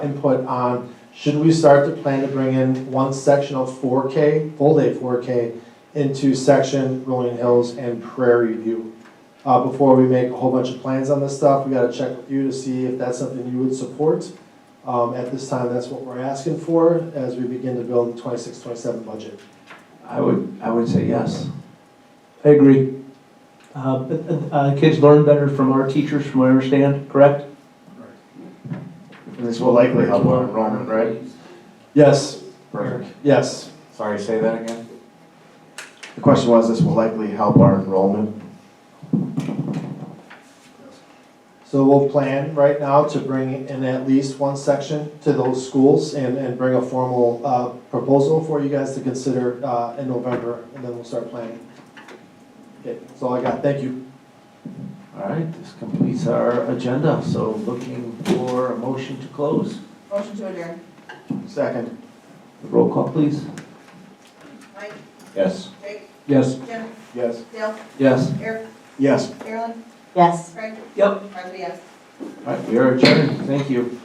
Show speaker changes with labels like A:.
A: input on, should we start to plan to bring in one section of four K, full day four K, into section Rolling Hills and Prairie View? Uh, before we make a whole bunch of plans on this stuff, we gotta check with you to see if that's something you would support. Um, at this time, that's what we're asking for as we begin to build the 26-27 budget.
B: I would, I would say yes.
C: I agree. Uh, But uh, uh, kids learn better from our teachers, from what I understand, correct?
B: And this will likely help our enrollment, right?
A: Yes,
B: Perfect.
A: yes.
B: Sorry, say that again. The question was, this will likely help our enrollment?
A: So we'll plan right now to bring in at least one section to those schools and, and bring a formal, uh, proposal for you guys to consider, uh, in November, and then we'll start planning. Okay, that's all I got, thank you.
B: All right, this completes our agenda, so looking for a motion to close.
D: Motion to adjourn.
A: Second.
B: Roll call, please.
D: Mike,
B: Yes.
D: Jake,
C: Yes.
D: Jim,
A: Yes.
D: Dale,
C: Yes.
D: Eric,
A: Yes.
D: Carolyn,
E: Yes.
D: Craig,
C: Yep.
D: Marley, yes.
B: All right, we are adjourned, thank you.